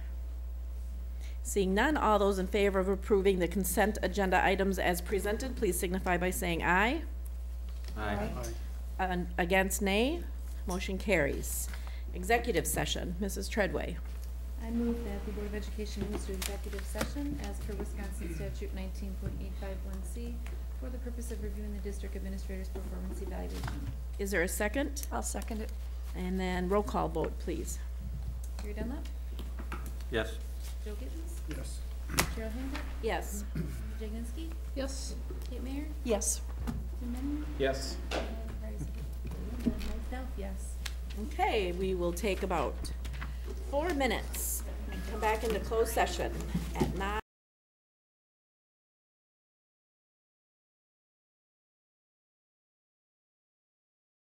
Seeing none, all those in favor of approving the consent agenda items as presented, please signify by saying aye. Aye. An- Against, nay. Motion carries. Executive session, Mrs. Treadway. I move that the Board of Education moves to executive session as per Wisconsin statute nineteen point eight five one C for the purpose of reviewing the district administrator's performance evaluation. Is there a second? I'll second it. And then roll call vote, please. Gary Dunlap, Yes. Joe Gittens, Yes. Cheryl Handler, Yes. Jaginski, Yes. Kate Mayer, Yes. Tim Menon, Yes. and Bryce. And Myself, yes. Okay, we will take about four minutes and come back into closed session at nine.